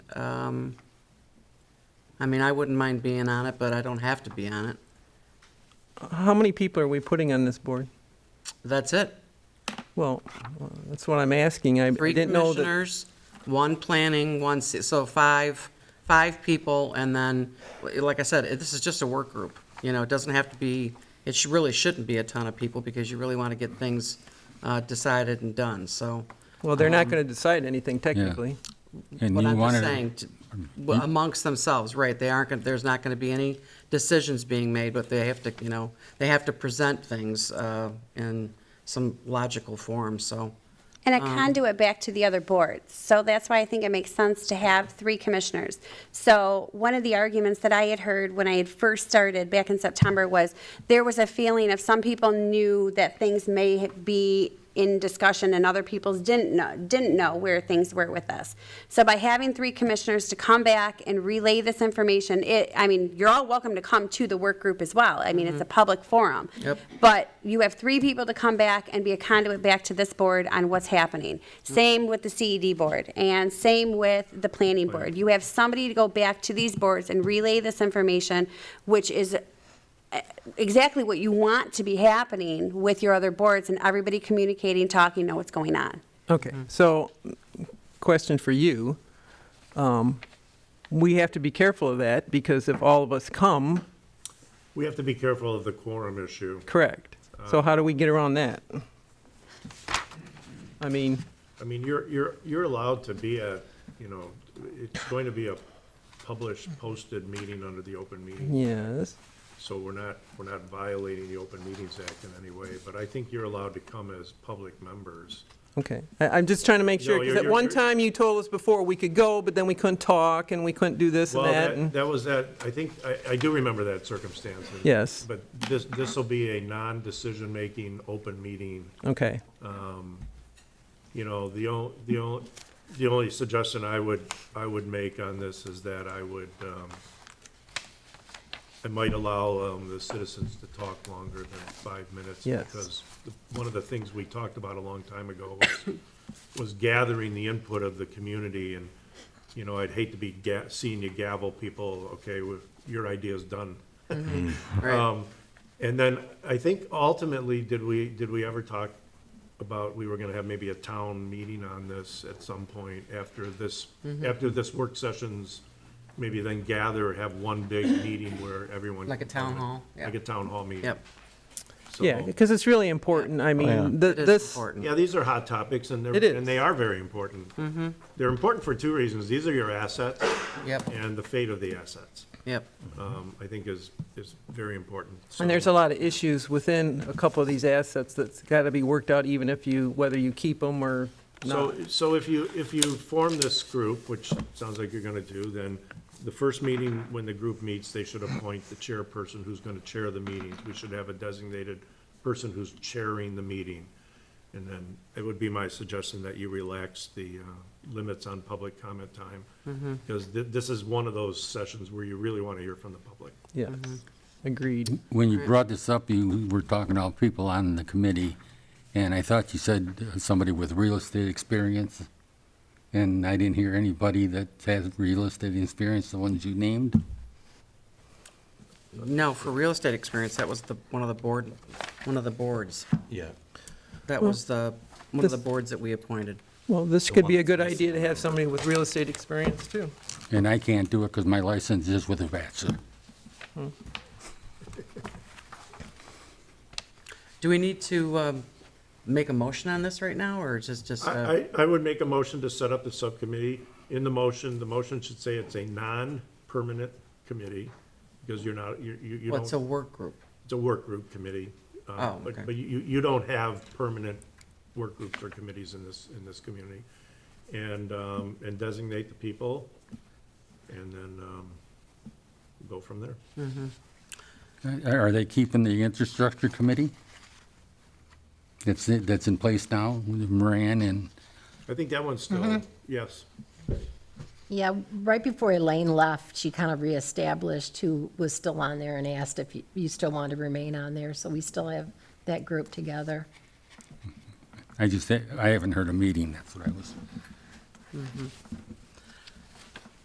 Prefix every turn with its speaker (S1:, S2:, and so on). S1: Um, I mean, I wouldn't mind being on it, but I don't have to be on it.
S2: How many people are we putting on this board?
S1: That's it.
S2: Well, uh, that's what I'm asking. I I
S1: Three
S2: didn't know that.
S1: commissioners, one planning, one, ci- so five, five people, and then, like I said, this is just a work group. You know, it doesn't have to be, it should- really shouldn't be a ton of people, because you really want to get things uh, decided and done, so.
S2: Well, they're not going to decide anything technically.
S3: And
S1: What
S3: you
S1: I'm just
S3: wanted- Hmm?
S1: saying, t- w- amongst themselves, right, they aren't, gonna- there's not going to be any decisions being made, but they have to, you know, they have to present things uh, in some logical form, so.
S4: And a conduit back to the other boards. So that's why I think it makes sense to have three commissioners. So one of the arguments that I had heard when I had first started back in September was there was a feeling of some people knew that things may be in discussion and other people's didn't know, didn't know where things were with us. So by having three commissioners to come back and relay this information, it, I mean, you're all welcome to come to the work group as well. I mean, it's a public forum.
S1: Yep.
S4: But you have three people to come back and be a conduit back to this board on what's happening. Same with the CED board, and same with the planning board. You have somebody to go back to these boards and relay this information, which is eh, exactly what you want to be happening with your other boards, and everybody communicating, talking, know what's going on.
S2: Okay, Mm-hmm. so, question for you. Um, We have to be careful of that, because if all of us come,
S5: We have to be careful of the quorum issue.
S2: correct. So how do we get around that? I mean,
S5: I mean, you're, you're, you're allowed to be a, you know, it's going to be a published, posted meeting under the open meeting.
S2: yes,
S5: So we're not, we're not violating the Open Meetings Act in any way, but I think you're allowed to come as public members.
S2: okay. I- I'm just trying to make sure,
S5: No,
S2: because
S5: you're-
S2: at
S5: you're-
S2: one
S5: you're-
S2: time you told us before we could go, but then we couldn't talk, and we couldn't do this and
S5: Well,
S2: that.
S5: that,
S2: and-
S5: that was that, I think, I, I do remember that circumstance. and-
S2: Yes.
S5: But this, this will be a non-decision-making, open meeting.
S2: Okay,
S5: You know, the only, the only, the only suggestion I would, I would make on this is that I would, um, I might allow, um, the citizens to talk longer than five minutes.
S2: Yes.
S5: Because the- one of the things we talked about a long time ago was, was gathering the input of the community and, you know, I'd hate to be ga- seeing you gavel people, okay, with, your idea's done.
S1: Right,
S5: Um, And then I think ultimately, did we, did we ever talk about, we were gonna have maybe a town meeting on this at some point after this,
S1: Mm-hmm.
S5: after this work sessions, maybe then gather, have one big meeting where everyone.
S1: Like a
S5: can
S1: town
S5: comment.
S1: hall, yeah.
S5: Like a town hall meeting.
S1: yep,
S5: So-
S2: yeah, because it's really important. I mean, th-
S1: it is
S2: this,
S1: important.
S5: Yeah, these are hot topics and
S2: It
S5: they're,
S2: is.
S5: and they are very important. Mm-hmm. They're important for two reasons. These are your assets
S1: Yep,
S5: and the fate of the assets,
S1: yep,
S5: um, I think is, is very important.
S2: And there's a lot of issues within a couple of these assets that's got to be worked out, even if you, whether you keep them or
S5: So,
S2: not.
S5: so if you, if you form this group, which sounds like you're gonna do, then the first meeting, when the group meets, they should appoint the chairperson who's gonna chair the meetings. We should have a designated person who's chairing the meeting. And then it would be my suggestion that you relax the uh, limits on public comment time. Because thi- this is one of those sessions where you really wanna hear from the public.
S2: Yes, agreed.
S3: When you brought this up, you were talking about people on the committee, and I thought you said uh, somebody with real estate experience, and I didn't hear anybody that has real estate experience, the ones you named.
S1: no, for real estate experience, that was the, one of the board, one of the boards.
S6: Yeah.
S1: That was the, one of the
S2: this-
S1: boards that we appointed.
S2: Well, this could be a
S6: one
S2: good
S6: that's
S2: idea to have somebody with real estate experience, too.
S3: And I can't do it because my license is with a bachelor.
S1: Do we need to um, make a motion on this right now, or just, just? uh,
S5: I, I I would make a motion to set up the subcommittee. In the motion, the motion should say it's a non-permanent committee, because you're not, you, you you don't.
S1: What's a work group?
S5: It's a work group committee. uh,
S1: Oh,
S5: but-
S1: okay.
S5: But you, you don't have permanent work groups or committees in this, in this community. And, um, and designate the people, and then, um, go from there.
S1: Hmm.
S3: Uh, Are they keeping the infrastructure committee? That's, it- that's in place now, with Moran and,
S5: I think that one's
S1: Mm-hmm.
S5: still, yes.
S7: Yeah, right before Elaine left, she kind of reestablished who was still on there and asked if you- you still wanted to remain on there. So we still have that group together.
S3: I just, I haven't heard a meeting, that's what I was.